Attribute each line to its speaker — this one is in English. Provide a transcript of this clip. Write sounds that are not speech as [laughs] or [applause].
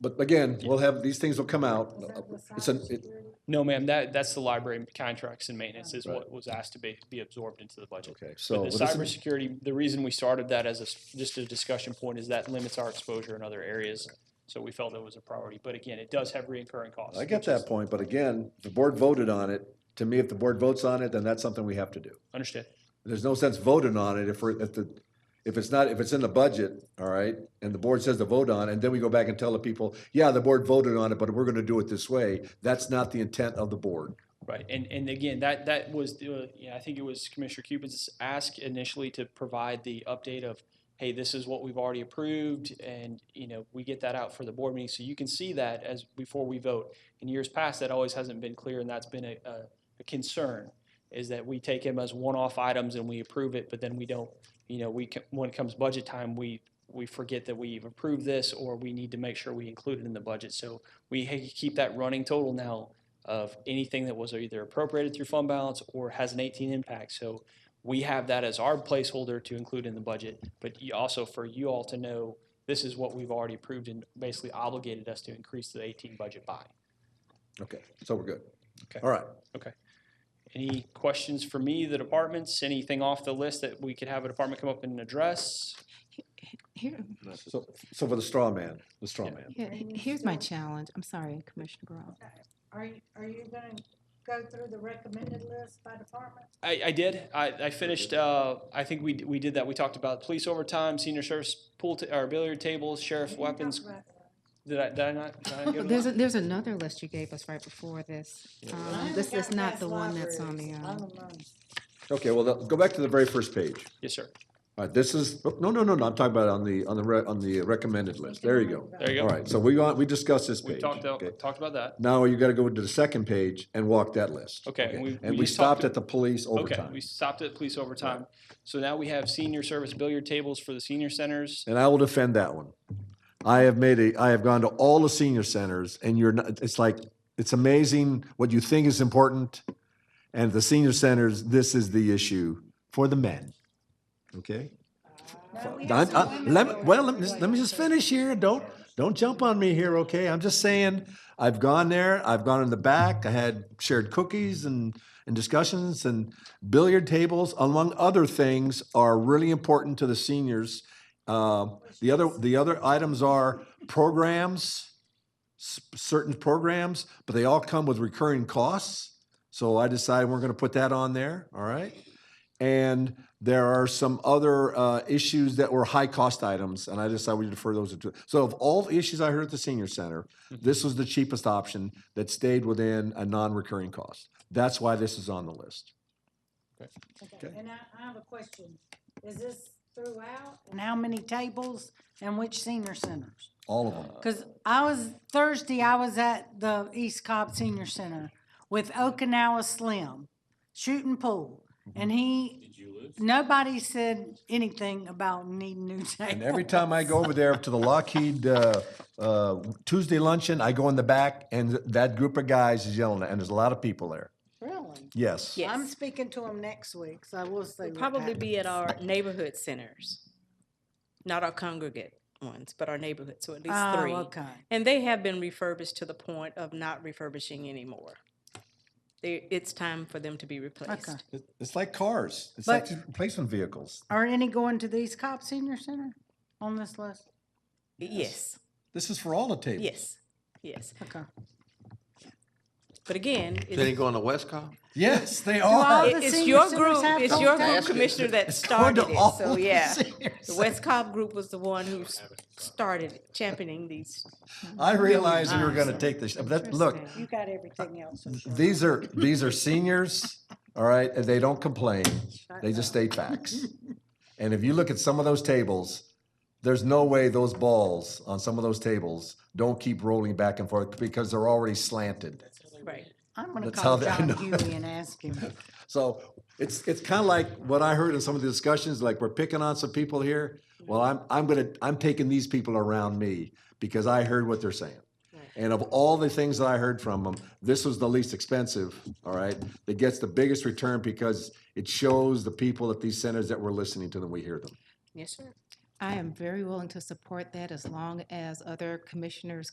Speaker 1: But again, we'll have, these things will come out. It's an, it-
Speaker 2: No, ma'am, that, that's the library contracts and maintenance is
Speaker 1: Right.
Speaker 2: what was asked to be, be absorbed into the budget.
Speaker 1: okay, so.
Speaker 2: But
Speaker 1: well,
Speaker 2: the
Speaker 1: this is-
Speaker 2: cybersecurity, the reason we started that as a, s- just a discussion point is that limits our exposure in other areas. So we felt it was a priority, but again, it does have reoccurring costs.
Speaker 1: I get
Speaker 2: which is-
Speaker 1: that point, but again, the board voted on it. To me, if the board votes on it, then that's something we have to do.
Speaker 2: Understand.
Speaker 1: There's no sense voting on it if we're, if the, if it's not, if it's in the budget, all right, and the board says to vote on, it, and then we go back and tell the people, yeah, the board voted on it, but we're gonna do it this way. That's not the intent of the board.
Speaker 2: Right, and, and again, that, that was, the- yeah, I think it was Commissioner Cupid's ask initially to provide the update of, hey, this is what we've already approved, and, you know, we get that out for the board meeting, so you can see that as, before we vote. In years past, that always hasn't been clear, and that's been a, a a concern, is that we take them as one-off items and we approve it, but then we don't, you know, we, ca- when it comes budget time, we, we forget that we've approved this, or we need to make sure we include it in the budget, so we ha- keep that running total now of anything that was either appropriated through fund balance or has an 18 impact. So we have that as our placeholder to include in the budget, but you also for you all to know, this is what we've already approved and basically obligated us to increase the 18 budget by.
Speaker 1: Okay, so we're good.
Speaker 2: Okay.
Speaker 1: All right,
Speaker 2: Any questions for me, the departments, anything off the list that we could have a department come up and address?
Speaker 3: Here,
Speaker 1: so, so for the straw man, the straw
Speaker 2: Yeah.
Speaker 1: man.
Speaker 3: here-
Speaker 4: Training
Speaker 3: here's my
Speaker 4: skills.
Speaker 3: challenge. I'm sorry, Commissioner Burrell.
Speaker 4: Are you, are you gonna go through the recommended list by department?
Speaker 2: I, I did. I, I finished, uh, I think we, d- we did that. We talked about police overtime, senior service pool, ta- or billiard tables, sheriff's
Speaker 4: We didn't talk
Speaker 2: weapons.
Speaker 4: about that.
Speaker 2: Did I, did I not? did I
Speaker 3: [laughs]
Speaker 2: not give
Speaker 3: There's,
Speaker 2: them
Speaker 3: a- there's another list you gave us right before this.
Speaker 4: I
Speaker 3: Um,
Speaker 4: only
Speaker 3: This is
Speaker 4: got
Speaker 3: not
Speaker 4: past
Speaker 3: the one that's on the,
Speaker 4: libraries. I'm
Speaker 3: um,
Speaker 4: alone.
Speaker 1: Okay, well, let's go back to the very first page.
Speaker 2: that? Yes, sir.
Speaker 1: All right, this is, oh, no, no, no, no, I'm talking about on the, on the, re- on the recommended list. There you go.
Speaker 2: There you go.
Speaker 1: All right, so we, want- we discussed this page.
Speaker 2: We talked, out-
Speaker 1: okay.
Speaker 2: talked about that.
Speaker 1: Now you gotta go to the second page and walk that list.
Speaker 2: Okay, and we-
Speaker 1: And
Speaker 2: we
Speaker 1: we
Speaker 2: just talked
Speaker 1: stopped at the police
Speaker 2: Okay,
Speaker 1: overtime.
Speaker 2: we stopped at police overtime. So now we have senior service billiard tables for the senior centers.
Speaker 1: And I will defend that one. I have made a, I have gone to all the senior centers and you're not, it's like, it's amazing what you think is important. And the senior centers, this is the issue for the men. Okay?
Speaker 4: No, we
Speaker 1: I-
Speaker 4: had some
Speaker 1: I-
Speaker 4: women
Speaker 1: Let, me-
Speaker 4: there.
Speaker 1: well, let me, just- let me just finish here. Don't, don't jump on me here, okay? I'm just saying, I've gone there, I've gone in the back, I had shared cookies and, and discussions and billiard tables, among other things, are really important to the seniors. Uh, The other, the other items are programs, s- certain programs, but they all come with recurring costs. So I decided we're gonna put that on there, all right? And there are some other uh, issues that were high-cost items, and I decided we defer those to. So of all the issues I heard at the senior center, this was the cheapest option that stayed within a non-recurring cost. That's why this is on the list.
Speaker 4: Okay, And I, I have a question. Is this throughout? And how many tables and which senior centers?
Speaker 1: All of them.
Speaker 4: Cause I was, Thursday, I was at the East Cobb Senior Center with Okinawa Slim shooting pool.
Speaker 1: Mm-hmm.
Speaker 4: And he, nobody said anything about needing new tables.
Speaker 1: And every time I go over there to the Lockheed uh, uh, Tuesday luncheon, I go in the back, and that group of guys is yelling, and there's a lot of people there.
Speaker 4: Really?
Speaker 1: Yes.
Speaker 4: I'm
Speaker 5: Yes,
Speaker 4: speaking to him next week, so I will say.
Speaker 5: we'll
Speaker 4: what
Speaker 5: probably
Speaker 4: happened.
Speaker 5: be at our neighborhood centers, not our congregate ones, but our neighborhood, so at least
Speaker 4: Oh,
Speaker 5: three.
Speaker 4: okay.
Speaker 5: And they have been refurbished to the point of not refurbishing anymore. They, it's time for them to be replaced.
Speaker 1: It- It's like cars. It's like
Speaker 4: But-
Speaker 1: these replacement vehicles.
Speaker 4: Are any going to the East Cobb Senior Center on this list?
Speaker 5: Yes,
Speaker 1: This is for all the tables.
Speaker 5: yes, yes.
Speaker 4: Okay.
Speaker 5: But again,
Speaker 6: They
Speaker 5: it's,
Speaker 6: didn't go on the West Comm?
Speaker 1: Yes, they
Speaker 4: all
Speaker 1: are.
Speaker 4: the
Speaker 5: it's
Speaker 4: senior
Speaker 5: your
Speaker 4: centers
Speaker 5: group,
Speaker 4: have
Speaker 5: it's
Speaker 4: those
Speaker 5: your
Speaker 4: tables?
Speaker 5: group commissioner that
Speaker 1: Going to
Speaker 5: started it,
Speaker 1: all
Speaker 5: so
Speaker 1: the
Speaker 5: yeah.
Speaker 1: seniors.
Speaker 5: The West Cobb group was the one who s- started championing these
Speaker 1: I realized we were going to take this, but that- look,
Speaker 4: You got everything else. I'm sure.
Speaker 1: these are, these are seniors,
Speaker 4: [laughs]
Speaker 1: all right, and they don't complain. They just state
Speaker 4: [laughs]
Speaker 1: facts. And if you look at some of those tables, there's no way those balls on some of those tables don't keep rolling back and forth because they're already slanted.
Speaker 5: Right.
Speaker 4: I'm gonna
Speaker 1: That's how
Speaker 4: call
Speaker 1: they- I
Speaker 4: John
Speaker 1: know.
Speaker 4: Huey and ask him.
Speaker 1: [laughs] So it's, it's kind of like what I heard in some of the discussions, like we're picking on some people here. Well, I'm, I'm gonna, I'm taking these people around me because I heard what they're saying. And of all the things that I heard from them, this was the least expensive, all right? That gets the biggest return because it shows the people at these centers that we're listening to them, we hear them.
Speaker 5: Yes, sir.
Speaker 3: I am very willing to support that as long as other commissioners